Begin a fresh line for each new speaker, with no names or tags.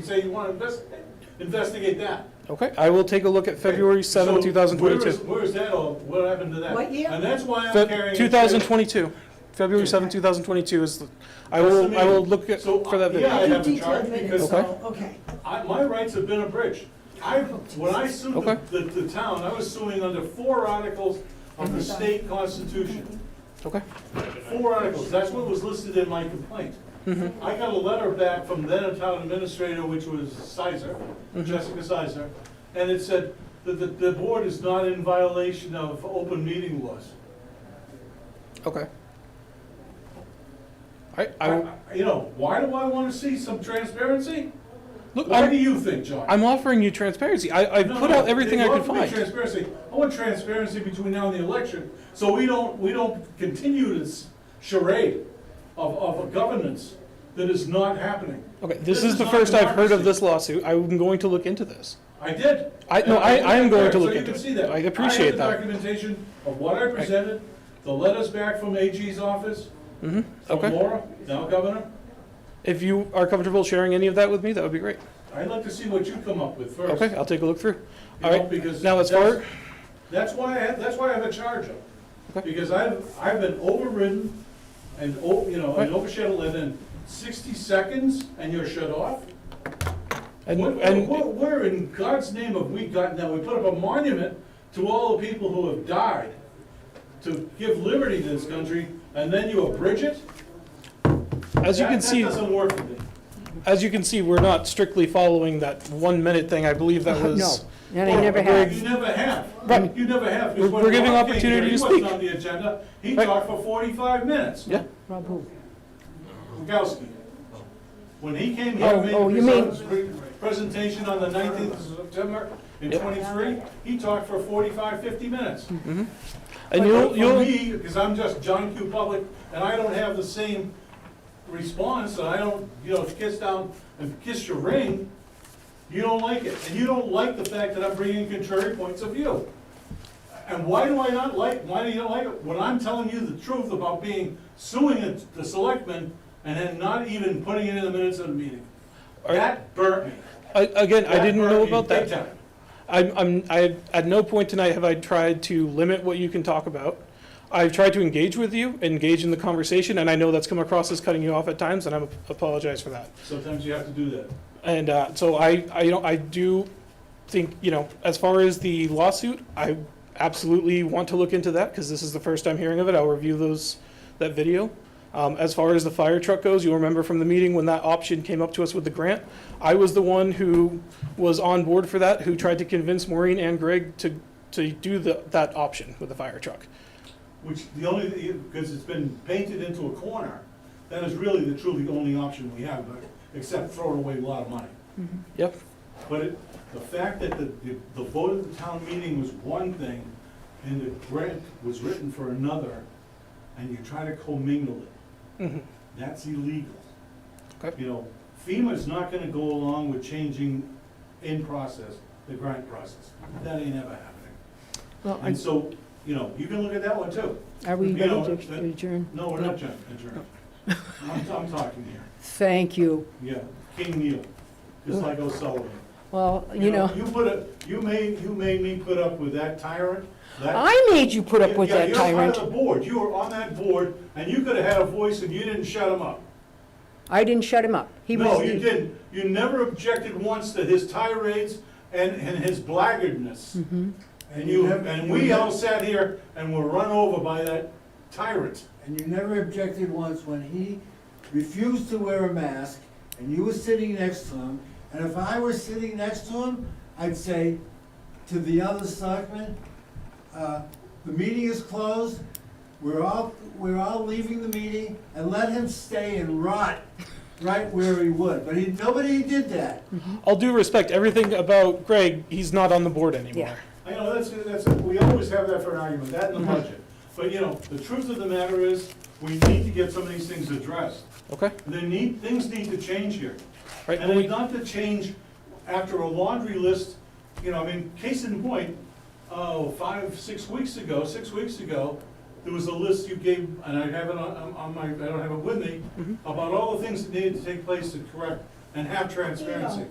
say you want to investigate, investigate that.
Okay, I will take a look at February
So
seventh, two thousand
where is-
twenty-two.
Where is that all, what happened to that?
What year?
And that's why I'm carrying. a
Two thousand
trailer.
twenty-two, February seventh, two thousand twenty-two is, the- I
That's the
will, I will
meeting.
look at-
So, uh,
for that
yeah,
video.
I
Do
have a
detailed
charge
minutes,
because
so, okay.
I, my rights have been abridged. I, when I sued
Okay.
the, the the town, I was suing under four articles of the state constitution.
Okay,
Four articles, that's what was listed in my complaint.
Mm-hmm.
I got a letter back from then town administrator, which was Sizer,
Mm-hmm.
Jessica Sizer, and it said that the, the board is not in violation of open meeting laws.
okay. I, I, will-
I- You know, why do I wanna see some transparency?
look,
Why do
I'm,
you think, John?
I'm offering you transparency. I, I
No,
put
no,
out everything
they
I
want
could
to be
find.
Transparency. I want transparency between now and the election, so we don't, we don't continue this charade of, of a governance that is not happening.
Okay, this
This
is
is
the
not
first I've heard of
democracy.
this lawsuit. I'm going to look into this.
I did.
I- no,
And
I- I am going
there,
to look
so you
into
can
it.
see that.
I appreciate that.
I have the documentation of what I presented, the letters back from AG's office,
Mm-hmm,
from
okay.
Laura, now governor.
If you are comfortable sharing any of that with me, that would be great.
I'd like to see what you come up with first.
Okay, I'll take a look through.
you
All
know,
right,
because
now as
that's-
far,
That's why I have, that's why I have a charge up.
Okay.
Because I've, I've been overridden and, o- you know,
Right.
and overshadowed within sixty seconds and you're shut off?
and,
What-
and,
what- Where in God's name have we gotten that? We put up a monument to all the people who have died to give liberty to this country and then you abridge it?
as you
That-
can see.
That doesn't work for me.
As you can see, we're not strictly following that one-minute thing. I believe that was.
No, they never have.
You never have.
Right.
You never have.
We're- we're giving opportunity to
He
speak.
wasn't on the agenda. He
Right.
talked for forty-five minutes.
Yeah,
Rob who?
Rogowski. When he came
Oh,
here, made
oh, you mean-
his pre- presentation on the nineteenth of September in
Yep.
twenty-three, he talked for 45, 50 minutes.
and
But
you'll,
For
you'll,
me, because I'm just John Q. Public, and I don't have the same response, and I don't, you know, kiss down and kiss your ring, you don't like it, and you don't like the fact that I'm bringing contrary points of view. And why do I not like, why do you not like it? When I'm telling you the truth about being, suing the- the selectmen, and then not even putting it in the minutes of the meeting.
All right.
That burnt me.
I- again, I
That
didn't
burnt
know
me
about
big
that.
time.
I'm, I'm, I, at no point tonight have I tried to limit what you can talk about. I've tried to engage with you, engage in the conversation, and I know that's come across as cutting you off at times, and I apologize for that.
Sometimes you have to do that.
And uh, so I, I, you know, I do think, you know, as far as the lawsuit, I absolutely want to look into that because this is the first I'm hearing of it. I'll review those, that video. Um, as far as the fire truck goes, you'll remember from the meeting when that option came up to us with the grant. I was the one who was on board for that, who tried to convince Maureen and Greg to, to do the, that option with the fire truck.
Which the only, because it's been painted into a corner, that is really the truly only option we have, but- except throwing away a lot of money.
Yep.
But it, the fact that the, the- the vote of the town meeting was one thing, and the grant was written for another, and you try to commingle it,
hmm
that's illegal.
Okay.
You know, FEMA's not gonna go along with changing in process, the grant process, that ain't ever happening.
Well,
And so, you know, you can look at that one too.
are we
you know,
ready to
that-
adjourn?
No, we're not adjourned. adjourned. I'm, I'm talking here,
Thank you.
yeah, King Neil, just like O'Sullivan.
Well, you know,
You put a, you made, you made me put up with that tyrant, that.
I made you put up with
Yeah,
that
You're part
tyrant.
of the board, you were on that board, and you could have had a voice and you didn't shut him up.
I didn't shut him up. He was.
No, you didn't, you never objected once to his tirades and, and his blackguardness.
Mm-hmm.
And you, and we all sat here and were run over by that tyrant.
and you never objected once when he refused to wear a mask, and you were sitting next to him, and if I were sitting next to him, I'd say to the other selectmen, uh, the meeting is closed, we're all, we're all leaving the meeting, and let him stay and rot right where he would, but he, nobody did that.
I'll do respect everything about Greg. He's not on the board anymore.
Yeah.
I know, that's, that's, we always have that for an argument, that and the budget. But, you know, the truth of the matter is, we need to get some of these things addressed.
Okay.
They need, things need to change here.
Right.
And it's not to change after a laundry list, you know, I mean, case in point, oh, five, six weeks ago, six weeks ago, there was a list you gave, and I have it on, on- on my, I don't have it with me, about all the things that needed to take place to correct and have transparency.